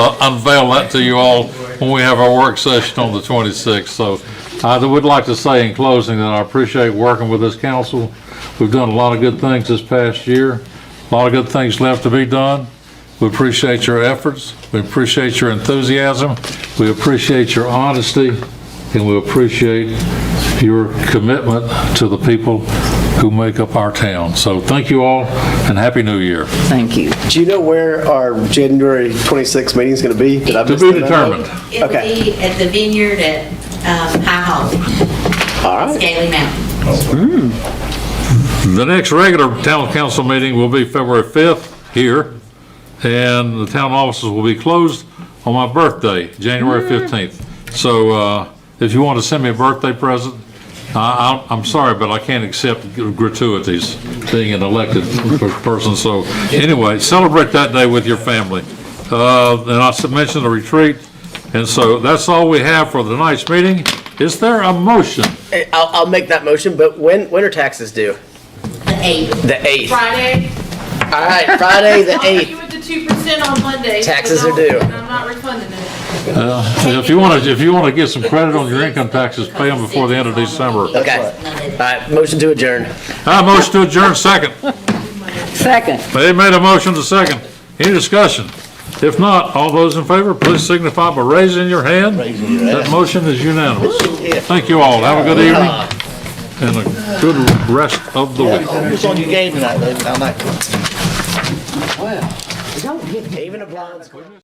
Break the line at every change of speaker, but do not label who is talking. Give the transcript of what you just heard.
uh, unveil that to you all when we have our work session on the 26th. So I would like to say in closing that I appreciate working with this council. We've done a lot of good things this past year, a lot of good things left to be done. We appreciate your efforts, we appreciate your enthusiasm, we appreciate your honesty, and we appreciate your commitment to the people who make up our town. So thank you all, and Happy New Year.
Thank you.
Do you know where our January 26th meeting is going to be? Did I
To
miss
be
that?
determined.
It'll
Okay.
be at the vineyard at um, High Hall,
All right.
Scaly Mountain.
The next regular town council meeting will be February 5th here, and the town offices will be closed on my birthday, January 15th. So uh, if you want to send me a birthday present, I- I- I'm sorry, but I can't accept gratuities being an elected person. So anyway, celebrate that day with your family. Uh, And I mentioned the retreat, and so that's all we have for tonight's meeting. Is there a motion?
Hey, I'll, I'll make that motion, but when, when are taxes due?
The eighth.
The 8th.
Friday.
All right, Friday, the
I'll hit you
8th.
with the two percent on Monday.
Taxes
but
are due.
I'll- And I'm not refunding it.
If you want to, if you want to get some credit on your income taxes, pay them before the end of December.
Okay. All right, motion to adjourn.
I motion to adjourn second.
Second.
They made a motion to second. Any discussion? If not, all those in favor, please signify by raising your hand. That motion is unanimous. Thank you all. Have a good evening
Uh,
and a good rest of the week.
It's on your game tonight, David. I might.
Don't hit me.
Even a blind squirrel.